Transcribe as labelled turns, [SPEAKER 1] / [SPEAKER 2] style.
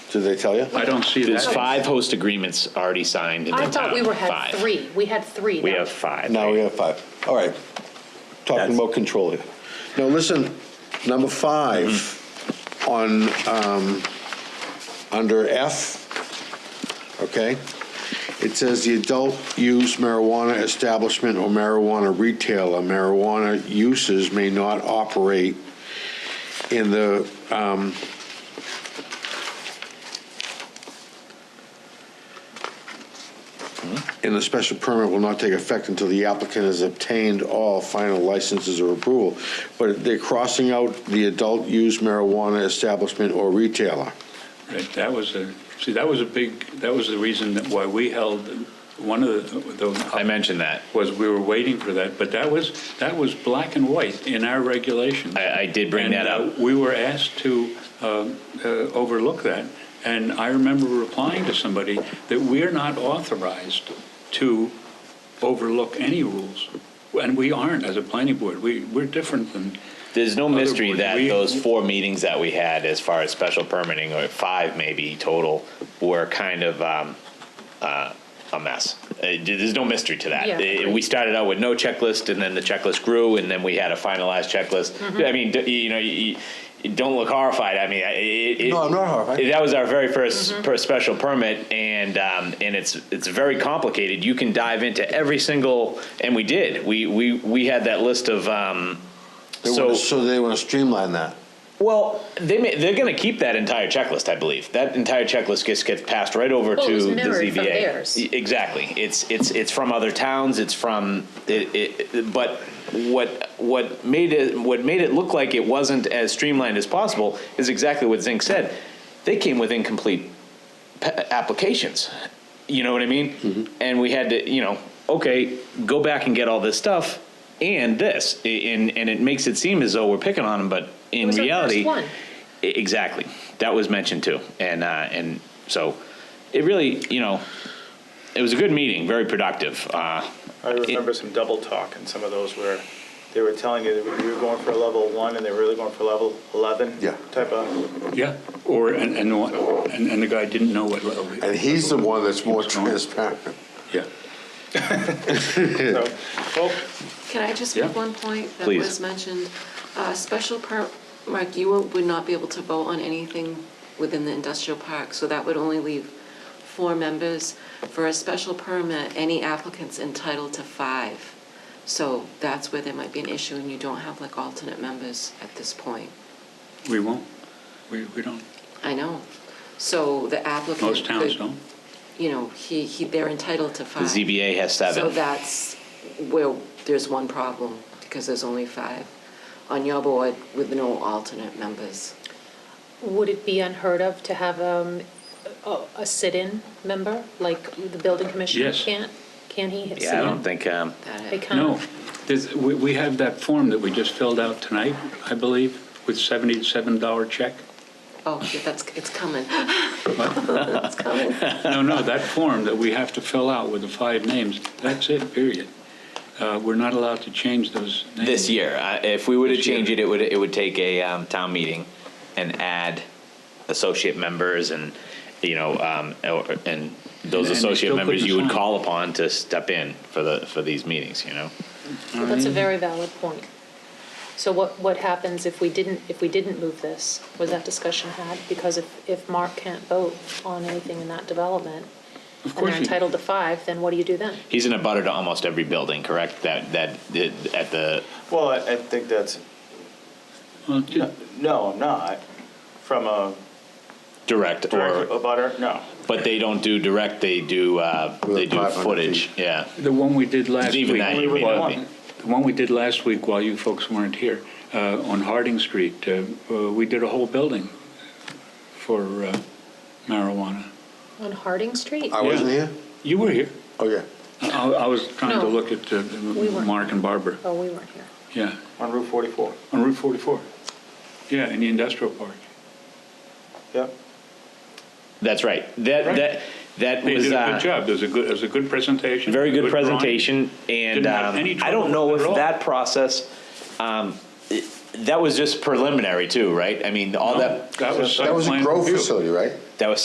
[SPEAKER 1] Did they tell you?
[SPEAKER 2] I don't see
[SPEAKER 3] There's
[SPEAKER 2] that.
[SPEAKER 3] five host agreements already signed in the
[SPEAKER 4] I
[SPEAKER 3] town.
[SPEAKER 4] thought we were, had
[SPEAKER 3] Five.
[SPEAKER 4] three, we had three.
[SPEAKER 3] We
[SPEAKER 4] That-
[SPEAKER 3] have five.
[SPEAKER 1] Now we have five. All right. Talking
[SPEAKER 3] That's-
[SPEAKER 1] about control here. Now, listen, number five on, um, under F, okay? It says the adult use marijuana establishment or marijuana retailer, marijuana uses may not operate in the, um, and the special permit will not take effect until the applicant has obtained all final licenses or approval. But they're crossing out the adult use marijuana establishment or retailer.
[SPEAKER 2] Right, That was a, see, that was a big, that was the reason that why we held, one of the-
[SPEAKER 3] I
[SPEAKER 2] the,
[SPEAKER 3] mentioned that.
[SPEAKER 2] was we were waiting for that, but that was, that was black and white in our regulations.
[SPEAKER 3] I, I did bring
[SPEAKER 2] And,
[SPEAKER 3] that
[SPEAKER 2] uh,
[SPEAKER 3] up.
[SPEAKER 2] We were asked to um, uh, overlook that, and I remember replying to somebody that we're not authorized to overlook any rules, and we aren't as a planning board. We, we're different than,
[SPEAKER 3] There's no
[SPEAKER 2] other
[SPEAKER 3] mystery
[SPEAKER 2] board,
[SPEAKER 3] that
[SPEAKER 2] we-
[SPEAKER 3] those four meetings that we had as far as special permitting, or five maybe total, were kind of, um, uh, a mess. Uh, There's no mystery to that.
[SPEAKER 4] Yeah.
[SPEAKER 3] Uh, We started out with no checklist and then the checklist grew and then we had a finalized checklist. I mean, d- you know, you, you don't look horrified. I mean, I- it. it-
[SPEAKER 1] No, I'm not horrified.
[SPEAKER 3] it- That was our very 1st per special permit, and um, and it's it's very complicated. You can dive into every single, and we did. We we we had that list of. Um,
[SPEAKER 1] They
[SPEAKER 3] So-
[SPEAKER 1] wanna- So they want to streamline that.
[SPEAKER 3] well, they may, they're going to keep that entire checklist, I believe. That entire checklist gets gets passed right over
[SPEAKER 4] Well, it
[SPEAKER 3] to
[SPEAKER 4] was
[SPEAKER 3] the
[SPEAKER 4] mirrored
[SPEAKER 3] ZBA.
[SPEAKER 4] from theirs.
[SPEAKER 3] E- Exactly. It's it's it's from other towns. It's from it, it, it- but what what made it what made it look like it wasn't as streamlined as possible is exactly what Zink said. They came with incomplete pa- applications. You know what I mean? And we had to, you know, okay, go back and get all this stuff and this, I- and and it makes it seem as though we're picking on them, but in
[SPEAKER 4] It was our
[SPEAKER 3] reality,
[SPEAKER 4] first one.
[SPEAKER 3] I- E-, exactly, that was mentioned too, and uh, and so it really, you know, it was a good meeting, very productive. Uh,
[SPEAKER 5] I remember some double talk in some of those where they were telling you that you were going for a level one and they were really going for level 11
[SPEAKER 1] Yeah.
[SPEAKER 5] type of,
[SPEAKER 2] yeah, or, and, and the one- and and the guy didn't know what. level he-
[SPEAKER 1] And he's the one that's more
[SPEAKER 2] What's going on?
[SPEAKER 1] transparent.
[SPEAKER 2] Yeah.
[SPEAKER 5] so, oh, well,
[SPEAKER 6] Can I just
[SPEAKER 2] Yeah.
[SPEAKER 6] make one point that
[SPEAKER 3] Please.
[SPEAKER 6] was mentioned? Uh, Special per, Mark, you won't- would not be able to vote on anything within the industrial park, so that would only leave four members. For a special permit, any applicant's entitled to five. So that's where there might be an issue, and you don't have like alternate members at this point.
[SPEAKER 2] We won't, we, we don't,
[SPEAKER 6] I know. So the applicant.
[SPEAKER 2] most towns
[SPEAKER 6] could-
[SPEAKER 2] don't.
[SPEAKER 6] You know, he, he, they're entitled to
[SPEAKER 3] the
[SPEAKER 6] five.
[SPEAKER 3] ZBA has
[SPEAKER 6] So
[SPEAKER 3] seven.
[SPEAKER 6] that's where there's one problem, because there's only five on your board with no alternate members.
[SPEAKER 4] Would it be unheard of to have um, a a sit-in member, like the building commissioner
[SPEAKER 2] Yes.
[SPEAKER 4] can't? Can he sit in?
[SPEAKER 3] yeah, I don't think. Um,
[SPEAKER 6] That
[SPEAKER 4] They
[SPEAKER 6] it-
[SPEAKER 4] can't.
[SPEAKER 2] No, there's, we, we have that form that we just filled out tonight, I believe, with seventy-seven dollar check.
[SPEAKER 6] Oh, yeah, that's, it's coming.
[SPEAKER 2] No, no, that form that we have to fill out with the five names, that's it, period. Uh, we're not allowed to change those names.
[SPEAKER 3] this year. Uh, if we were to
[SPEAKER 2] This year.
[SPEAKER 3] change it, it would it would take a um, town meeting and add associate members and you know um, or- and
[SPEAKER 2] And- and
[SPEAKER 3] those
[SPEAKER 2] they
[SPEAKER 3] associate
[SPEAKER 2] still
[SPEAKER 3] members
[SPEAKER 2] couldn't
[SPEAKER 3] you would
[SPEAKER 2] sign.
[SPEAKER 3] call upon to step in for the for these meetings. You know,
[SPEAKER 4] Well, That's a very valid point. So what, what happens if we didn't, if we didn't move this? Was that discussion had? Because if, if Mark can't vote on anything in that development,
[SPEAKER 2] Of
[SPEAKER 4] and
[SPEAKER 2] course
[SPEAKER 4] they're
[SPEAKER 2] you-
[SPEAKER 4] entitled to five, then what do you do then?
[SPEAKER 3] he's in a butter to almost every building. Correct that that that- at the
[SPEAKER 5] well, I I think that's,
[SPEAKER 2] Well, ju-
[SPEAKER 5] no, I'm not, from a
[SPEAKER 3] direct
[SPEAKER 5] direct
[SPEAKER 3] or
[SPEAKER 5] abutter, no.
[SPEAKER 3] but they don't do direct. They do uh,
[SPEAKER 1] With
[SPEAKER 3] they do
[SPEAKER 1] 500
[SPEAKER 3] footage. Yeah,
[SPEAKER 2] The one we did last week.
[SPEAKER 3] Even that you may not be.
[SPEAKER 2] The one we did last week while you folks weren't here, uh, on Harding Street, uh, uh, we did a whole building for uh, marijuana.
[SPEAKER 4] On Harding Street?
[SPEAKER 1] I wasn't here?
[SPEAKER 2] You were here.
[SPEAKER 1] Oh, yeah.
[SPEAKER 2] I, I was trying to
[SPEAKER 4] No.
[SPEAKER 2] look at uh,
[SPEAKER 4] weren't.
[SPEAKER 2] Mark and Barbara,
[SPEAKER 4] Oh, we weren't here.
[SPEAKER 2] yeah,
[SPEAKER 5] On Route 44,
[SPEAKER 2] on Route 44. Yeah, in the industrial park.
[SPEAKER 5] yep.
[SPEAKER 3] that's right. That
[SPEAKER 2] Right.
[SPEAKER 3] that that
[SPEAKER 2] They
[SPEAKER 3] was
[SPEAKER 2] did a
[SPEAKER 3] uh,
[SPEAKER 2] good job, it was a good, it was a good presentation.
[SPEAKER 3] Very good
[SPEAKER 2] drawing.
[SPEAKER 3] presentation, and
[SPEAKER 2] Didn't have
[SPEAKER 3] um,
[SPEAKER 2] any
[SPEAKER 3] I don't
[SPEAKER 2] trouble
[SPEAKER 3] know
[SPEAKER 2] with it at
[SPEAKER 3] if
[SPEAKER 2] all.
[SPEAKER 3] that process, um, it- that was just preliminary too, right? I mean, all that,
[SPEAKER 2] That was
[SPEAKER 1] That
[SPEAKER 2] site
[SPEAKER 1] was a
[SPEAKER 2] plan
[SPEAKER 1] grow
[SPEAKER 2] review.
[SPEAKER 1] facility, right?